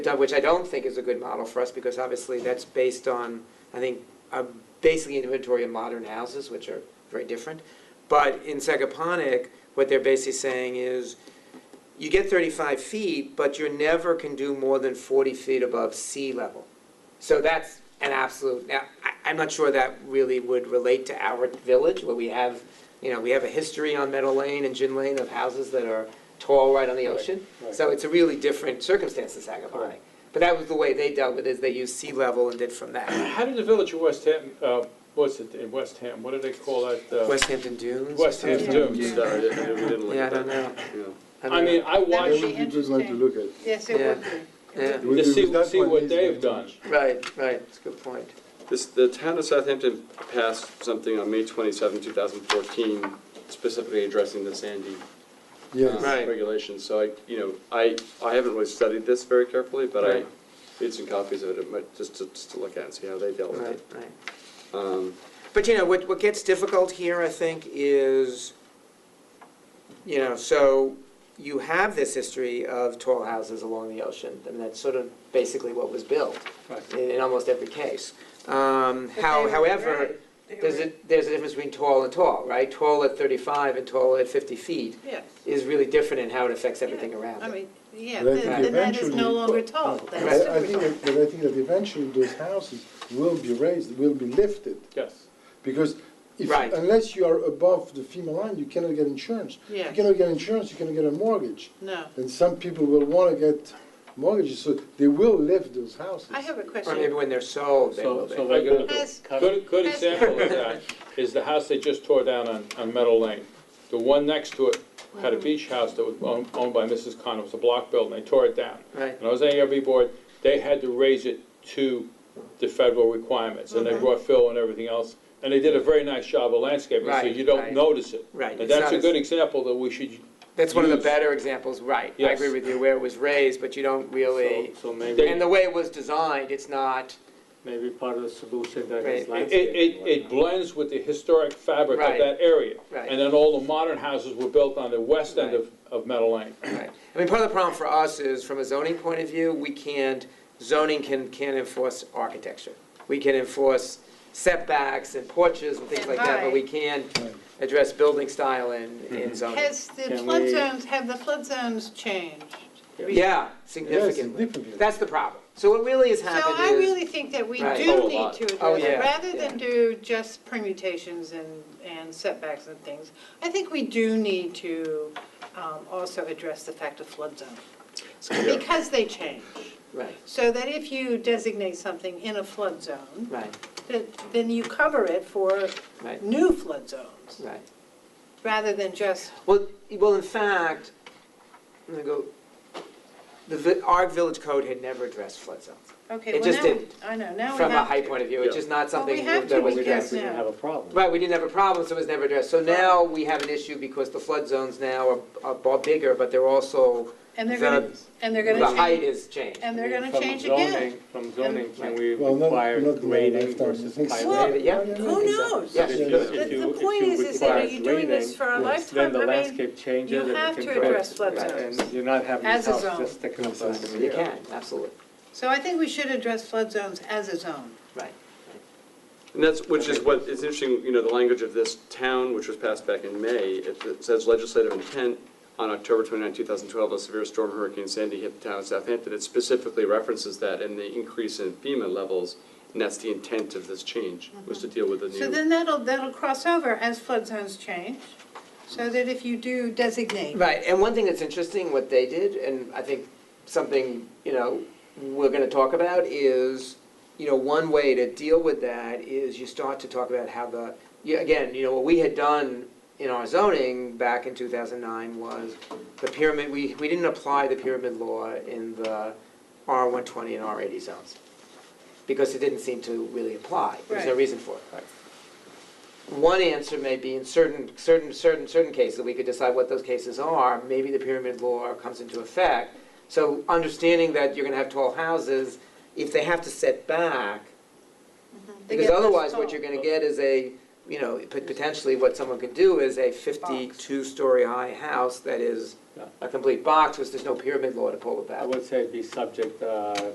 done, which I don't think is a good model for us, because obviously that's based on, I think, uh, basically inventory of modern houses, which are very different. But in Sagaponic, what they're basically saying is, you get thirty-five feet, but you never can do more than forty feet above sea level. So that's an absolute, now, I, I'm not sure that really would relate to our village, where we have, you know, we have a history on Meadow Lane and Gin Lane of houses that are tall right on the Right, ocean. right. So it's a really different circumstance in Sagaponic. Correct. But that was the way they dealt with it, is they used sea level and did from that. How did the village of West Ham, uh, what's it, in West Ham, what do they call that? uh, West Hampton Dunes? or West Ham something? Dunes. No, I didn't- I didn't look Yeah, I at don't that. know. Yeah. don't I mean, know. I That watched, would be a good one to interesting. look at. Yes, it would Yeah, It would To be- see- that's see what is they've the- done. right, right, it's a good point. This, the town of Southampton passed something on May twenty-seven, two thousand fourteen, specifically addressing the Sandy uh, Yes, Right. regulations. So I, you know, I, I haven't really studied this very carefully, but I Right. made some copies of it, it, might- just to, just to look at and see how they dealt with Right, it. right. Um, But you know, what, what gets difficult here, I think, is, you know, so you have this history of tall houses along the ocean, and that's sort of basically what was built Right. in, in almost every case. Um, But they how, were however, They there's were- a, there's a difference between tall and tall, right? Tall at thirty-five and tall at fifty feet Yes, is really different in how it affects everything around I it. mean, yeah, Right, then but then that is no eventually- longer tall, that's Right. super I I think, tall. that- but I think that eventually those houses will be raised, will be lifted, yes. because if, Right. unless you are above the FEMA line, you cannot get insurance. Yeah. You cannot get insurance, you cannot get a mortgage, No, and some people will want to get mortgages, so they will lift those houses. I have a Or maybe question. when they're sold, they will So, be. so they got, Has- good, good example of that is the house they just tore down on, on Meadow Lane. The one next to it had a beach house that was owned, owned by Mrs. Connor, it was a block building, they tore it down. Right. And I was on the ARB board, they had to raise it to the federal requirements, and they brought fill and everything else. And they did a very nice job of landscaping, so Right, right. you don't notice it. Right, And it's that's not a as- good example that we should, That's one of the Use. better examples, right. I Yes. agree with you, where it was raised, but you don't really, So so maybe, and the way it was designed, it's not, maybe part of the solution that Right. It- is it, landscaping. it, it blends with the historic fabric of Right. that area. Right. And then all the modern houses were built on the west end of, of Meadow Lane. right. I mean, part of the problem for us is, from a zoning point of view, we can't, zoning can, can't enforce architecture. We can enforce setbacks and porches and things And like that, but height. we can address building style in, in zoning. Mm-hmm. Has the Can flood we- zones, have the flood zones changed? Yeah, Yes, significantly. significantly. That's the problem. So what really has So I happened is, really think that we Right. Oh, do a need lot. to Oh, address, it. yeah, rather yeah. than do just permutations and, and setbacks and things, I think we do need to um, also address the fact of flood zone, yeah. because they change. right, So that if you designate something in a flood zone, right, then- then you cover it for right, new flood zones, right. rather than just, Well, well, in fact, I'm gonna go, the, vi- our village code had never addressed flood zones. okay, It well, just now, didn't. I know, now we From a have high to. point of view, it's Yeah. just not Well, we something have that to was because addressed. We didn't now- have a problem. Right, we didn't have a problem, so it was never addressed. So now we have an issue because the flood zones now are, are far bigger, but they're also, And they're gonna, and they're the gonna height change, is changed. and they're gonna From change zoning- again. From zoning, can we Well, not- require not in my grading lifetime, I versus think so. pilot? Well, Yeah. Who knows? Yes. If Yeah. you- The- if the you- if point you is- is that require are you doing this grading, for a Then lifetime? the I mean, landscape changes. you and have can to correct address it. flood Right. zones And you're not having as this a house zone. just sticking up out of the You air. can, absolutely, So I think we should address flood zones as a zone. right. And that's, which is what, it's interesting, you know, the language of this town, which was passed back in May, it it says legislative intent on October 29, 2012, a severe storm Hurricane Sandy hit the town of Southampton. It specifically references that and the increase in FEMA levels, and that's the intent of this change, was to deal with the So new. then that'll, that'll cross over as flood zones change, so that if you do designate. Right, and one thing that's interesting, what they did, and I think something, you know, we're gonna talk about is, you know, one way to deal with that is you start to talk about how the, yeah, again, you know, what we had done in our zoning back in two thousand nine was the pyramid, we, we didn't apply the pyramid law in the R one twenty and R eighty zones. Because it didn't seem to really apply, there was no Right. reason for it. One answer may be in certain, certain, certain, certain cases, we could decide what those cases are, maybe the pyramid law comes into effect. So understanding that you're gonna have tall houses, if they have to set back, They because get less otherwise what tall. you're gonna get is a, you know, pot- potentially what someone could do is a fifty-two story high house that is Yeah. a complete box, because there's no pyramid law to pull it back. I would say be subject, uh,